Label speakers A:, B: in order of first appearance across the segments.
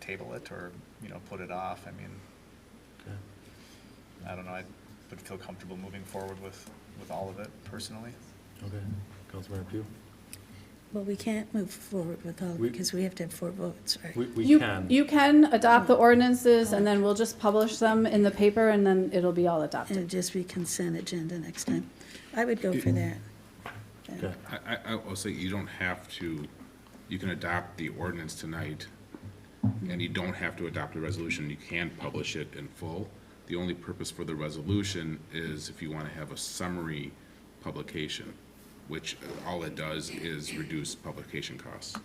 A: table it or, you know, put it off. I mean,
B: Okay.
A: I don't know, I would feel comfortable moving forward with, with all of it personally.
B: Okay, Councilmember Pugh?
C: Well, we can't move forward with all,
B: We-
C: because we have to have four votes, right?
B: We, we
D: You-
B: can,
D: You can adopt the ordinances, and then we'll just publish them in the paper, and then it'll be all
C: And
D: adopted.
C: it'd just be consent agenda next time. I would go for that.
B: Mm. okay,
E: I, I, I will say you don't have to, you can adopt the ordinance tonight, and you don't have to adopt a resolution. You can publish it in full. The only purpose for the resolution is if you want to have a summary publication, which all it does is reduce publication costs.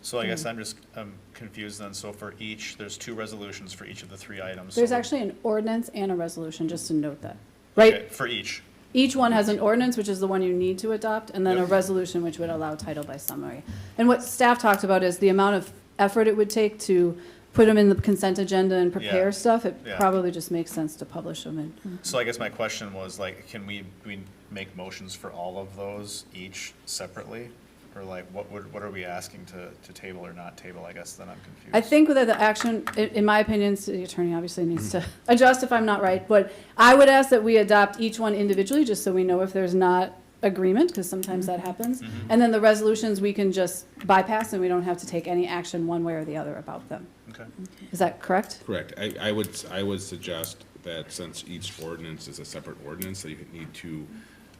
A: So I guess
D: Hmm.
A: I'm just, I'm confused then. So for each, there's two resolutions for each of the three items.
D: There's
A: So-
D: actually an ordinance and a resolution, just to note that,
A: Okay,
D: right?
A: For each.
D: Each one has an ordinance, which is the one you need to adopt, and then a
A: Yep.
D: resolution, which would allow title by summary. And what staff talked about is the amount of effort it would take to put them in the consent agenda and
A: Yeah.
D: prepare stuff. It
A: Yeah.
D: probably just makes sense to publish them in.
A: So I guess my question was like, can we, we make motions for all of those each separately? Or like, what would, what are we asking to, to table or not table? I guess then I'm confused.
D: I think that the action, i- in my opinion, city attorney obviously needs to adjust if I'm not right, but I would ask that we adopt each one individually, just so we know if there's not agreement, because sometimes that happens. And then the resolutions, we can just bypass, and we don't have to take any action one way or the other about them.
A: Okay.
D: Is that correct?
E: Correct. I, I would, I would suggest that since each ordinance is a separate ordinance, that you need to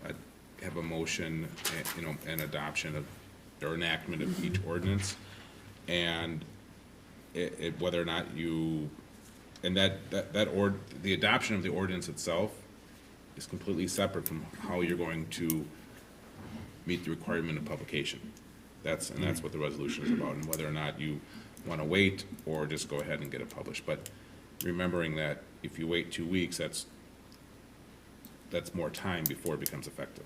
E: uh, have a motion, and, you know, an adoption of, or enactment of each ordinance. And it, it, whether or not you, and that, that, that ord, the adoption of the ordinance itself is completely separate from how you're going to meet the requirement of publication. That's, and that's what the resolution is about, and whether or not you want to wait or just go ahead and get it published. But remembering that if you wait two weeks, that's, that's more time before it becomes effective.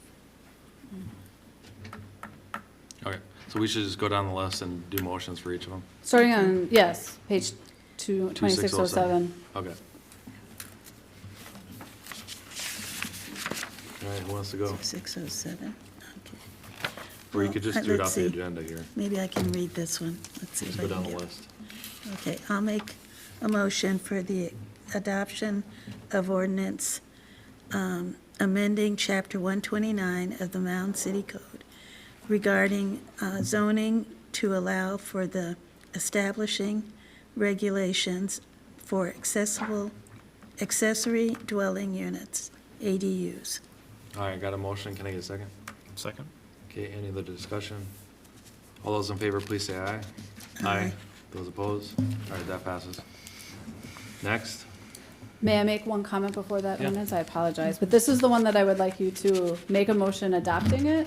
B: okay. So we should just go down the list and do motions for each of them?
D: Starting on, um, yes, page two, twenty-six oh
B: 2607.
D: seven.
B: Okay. All right, who wants to go?
C: Six oh seven, okay.
B: Or you
C: Well,
B: could
C: uh,
B: just do it
C: let's
B: off the
C: see.
B: agenda here.
C: Maybe I can read this one. Let's see. if
B: Just
C: I
B: go
C: can
B: down the
C: get-
B: list.
C: Okay, I'll make a motion for the adoption of ordinance um, amending Chapter 129 of the Mound City Code regarding uh, zoning to allow for the establishing regulations for accessible accessory dwelling units, ADUs.
B: All right, got a motion, can I get a second?
A: Second?
B: Okay, any other discussion? All those in favor, please say aye.
C: Aye.
B: Those opposed? All right, that passes. Next,
D: May I make one comment before that
B: Yeah.
D: ordinance? I apologize, but this is the one that I would like you to make a motion adopting it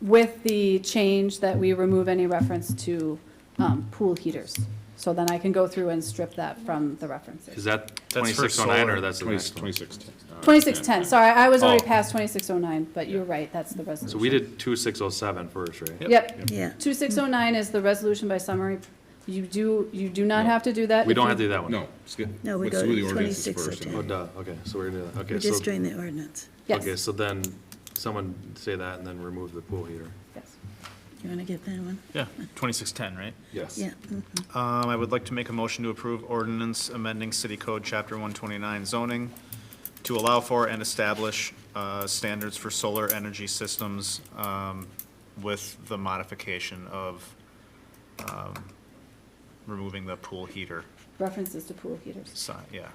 D: with the change that we remove any reference to um, pool heaters. So then I can go through and strip that from the
B: is
D: references.
B: that
A: for
B: twenty-six oh nine
A: solar.
B: or that's the next one?
E: Twenty-six. uh,
D: Twenty-six ten, sorry, I was already
B: Oh.
D: past twenty-six oh nine, but you're right, that's the resolution.
B: So we did two six oh seven first, right?
D: Yep,
C: Yeah,
D: two six oh nine is the resolution by summary. You do, you do not
E: No.
D: have to do that.
B: We
D: Uh, if
B: don't
D: you-
B: have to do that one?
E: No, skip,
C: No, we
E: let's
C: go
E: do
C: to
E: the ordinances
C: 26 or
E: first. and
B: Oh,
C: ten.
E: then-
B: duh, okay, so we're gonna, do that. okay,
C: we're just
B: so,
C: doing the ordinance.
B: okay,
D: Yes,
B: so then, someone say that and then remove the pool heater.
D: yes.
C: You want to get that one?
A: Yeah, twenty-six ten, right?
B: Yes.
C: Yeah. mhm.
A: Um, I would like to make a motion to approve ordinance amending City Code Chapter one twenty-nine zoning to allow for and establish, uh, standards for solar energy systems, um, with the modification of, um, removing the pool heater
D: References to pool heaters.
A: sign, yeah.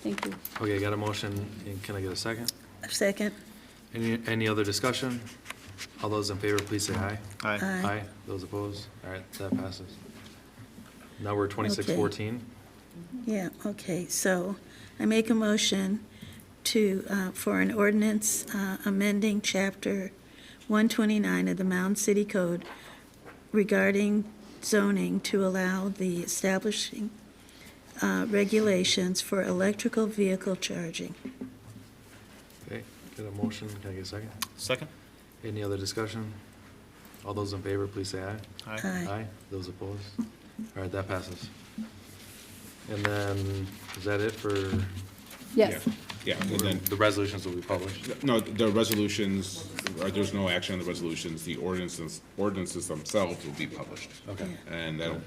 D: Thank you.
B: Okay, got a motion, and can I get a second?
C: Second,
B: Any, any other discussion? All those in favor, please say aye.
A: Aye.
C: Aye.
B: Those opposed? All right, that passes. Now we're twenty-six fourteen.
C: Yeah, okay, so I make a motion to, uh, for an ordinance uh, amending Chapter 129 of the Mound City Code regarding zoning to allow the establishing uh, regulations for electrical vehicle charging.
B: Okay, get a motion, can I get a second?
A: Second?
B: Any other discussion? All those in favor, please say aye.
A: Aye.
C: Aye.
B: Those opposed? All right, that passes. And then, is that it for,
D: Yes.
E: Yeah, yeah, and then,
B: the resolutions will be published?
E: no, the resolutions, uh, there's no action on the resolutions. The ordinances, ordinances themselves will be published.
B: Okay.
E: And that'll